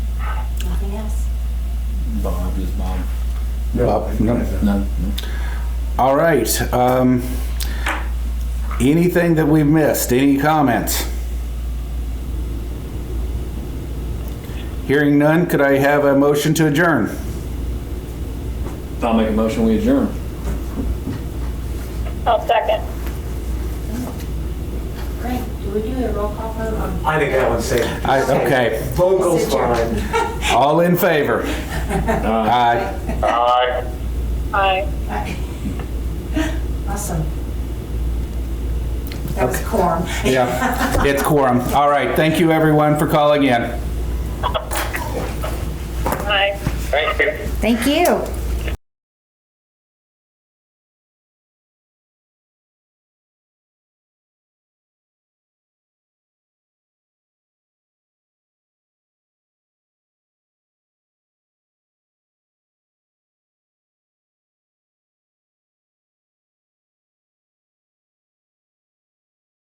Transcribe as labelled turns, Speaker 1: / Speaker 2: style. Speaker 1: nothing else.
Speaker 2: Bob is Bob.
Speaker 3: Bob?
Speaker 4: I
Speaker 3: No.
Speaker 4: don't.
Speaker 2: None.
Speaker 3: All right. um, Anything that we've missed? Any comments? Hearing none, could I have a motion to adjourn?
Speaker 2: I'll make a motion, we adjourn.
Speaker 5: I'll second.
Speaker 1: Great, do we do a roll call vote on?
Speaker 4: I think that one's safe.
Speaker 3: I- okay.
Speaker 4: Vocals fine.
Speaker 3: All in favor? Aye.
Speaker 5: Aye. Aye.
Speaker 1: Awesome. That was quorum.
Speaker 3: Yeah, it's quorum. All right, thank you everyone for calling in.
Speaker 5: Aye. Thank you.
Speaker 6: Thank you.